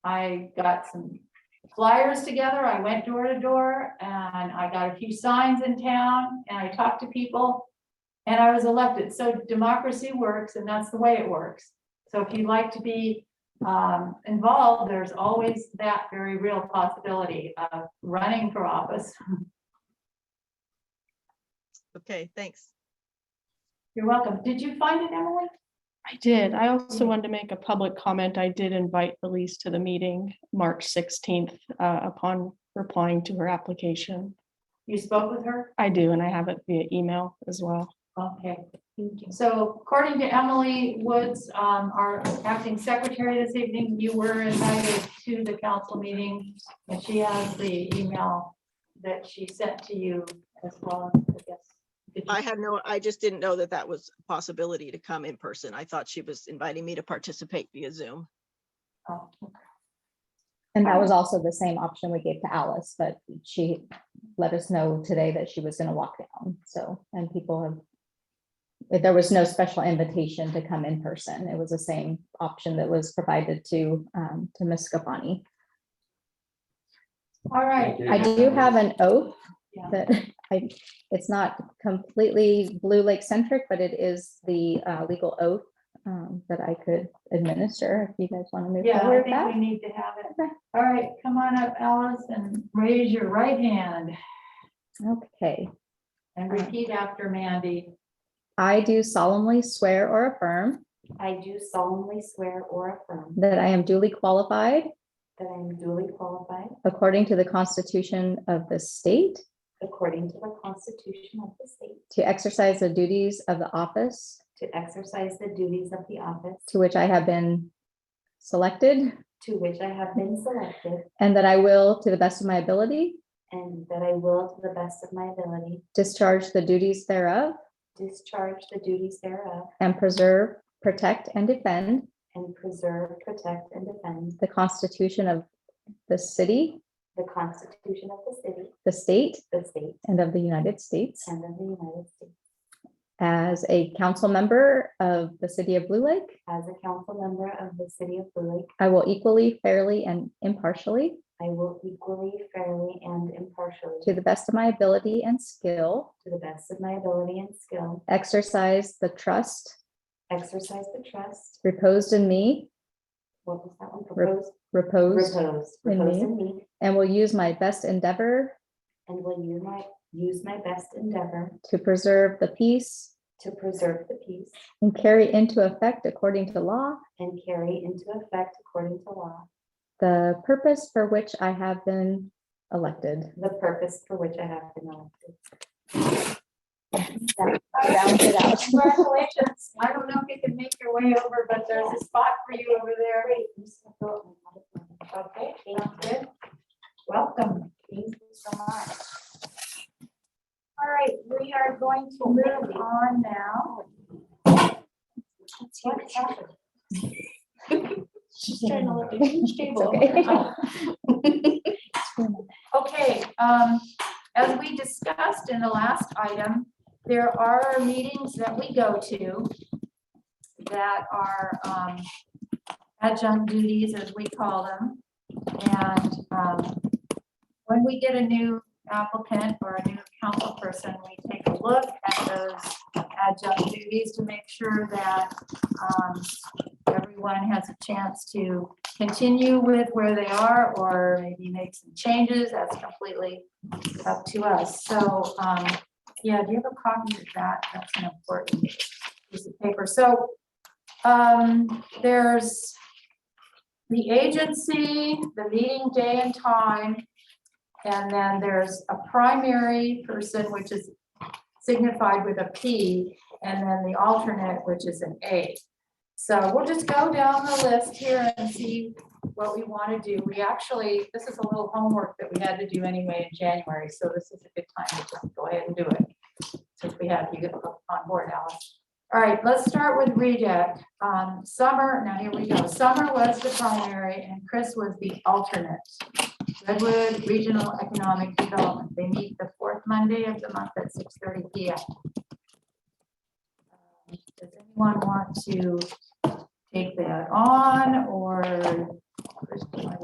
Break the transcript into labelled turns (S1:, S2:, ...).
S1: I got some flyers together, I went door to door, and I got a few signs in town, and I talked to people. And I was elected, so democracy works, and that's the way it works. So if you'd like to be um, involved, there's always that very real possibility of running for office.
S2: Okay, thanks.
S1: You're welcome. Did you find it, Emily?
S3: I did. I also wanted to make a public comment. I did invite Elise to the meeting, March sixteenth, uh, upon replying to her application.
S1: You spoke with her?
S3: I do, and I have it via email as well.
S1: Okay, thank you. So according to Emily Woods, um, our acting secretary this evening, you were invited to the council meeting. And she has the email that she sent to you as well, I guess. Did you-
S2: I had no, I just didn't know that that was a possibility to come in person. I thought she was inviting me to participate via Zoom.
S1: oh,
S4: And
S1: Uh-huh.
S4: that was also the same option we gave to Alice, but she let us know today that she was gonna walk down, so, and people have. but There was no special invitation to come in person. It was the same option that was provided to, um, to Ms. Scafani.
S1: All right,
S4: I do have an oath
S1: Yeah.
S4: that I, it's not completely Blue Lake centric, but it is the, uh, legal oath. Um, that I could administer if you guys want to move
S1: yeah, I
S4: forward with
S1: think we
S4: that.
S1: need to have it.
S4: Okay.
S1: All right, come on up, Alice, and raise your right hand
S4: Okay.
S1: and repeat after Mandy.
S4: I do solemnly swear or affirm
S5: I do solemnly swear or affirm
S4: that I am duly qualified,
S5: that I am duly qualified
S4: according to the Constitution of the state,
S5: according to the Constitution of the state
S4: to exercise the duties of the office
S5: to exercise the duties of the office
S4: to which I have been selected,
S5: to which I have been selected
S4: and that I will, to the best of my ability,
S5: and that I will, to the best of my ability,
S4: discharge the duties thereof
S5: discharge the duties thereof
S4: and preserve, protect, and defend
S5: and preserve, protect, and defend
S4: the Constitution of the city,
S5: the Constitution of the city,
S4: the state,
S5: the state,
S4: and of the United States.
S5: and of the United States.
S4: As a council member of the city of Blue Lake,
S5: As a council member of the city of Blue Lake,
S4: I will equally, fairly, and impartially,
S5: I will equally, fairly, and impartially,
S4: to the best of my ability and skill,
S5: to the best of my ability and skill,
S4: exercise the trust
S5: exercise the trust
S4: reposed in me,
S5: what was that one?
S4: Rep-
S5: Proposed,
S4: reposed,
S5: proposed,
S4: in
S5: proposed
S4: me.
S5: in me,
S4: and will use my best endeavor
S5: and will use my, use my best endeavor
S4: to preserve the peace
S5: to preserve the peace
S4: and carry into effect according to law
S5: and carry into effect according to law
S4: the purpose for which I have been elected.
S5: the purpose for which I have been elected.
S4: Round it out.
S1: Congratulations. I don't know if you can make your way over, but there's a spot for you over there. Okay, sounds good. Welcome. Thank you so much. All right, we are going to move on now. What happened? She's trying to look at each table. Okay, um, as we discussed in the last item, there are meetings that we go to that are um, adjunct duties, as we call them. And um, when we get a new applicant or a new council person, we take a look at those adjunct duties to make sure that um, everyone has a chance to continue with where they are or maybe make some changes. That's completely up to us. So um, yeah, do you have a copy of that? That's an important piece of paper. So um, there's the agency, the meeting day and time, and then there's a primary person, which is signified with a P, and then the alternate, which is an A. So we'll just go down the list here and see what we want to do. We actually, this is a little homework that we had to do anyway in January, so this is a good time to just go ahead and do it since we have you on board, Alice. All right, let's start with redeck. Um, Summer, now here we go. Summer was the primary and Chris was the alternate. Redwood Regional Economic Development, they meet the fourth Monday of the month at six thirty P M. Does anyone want to take that on or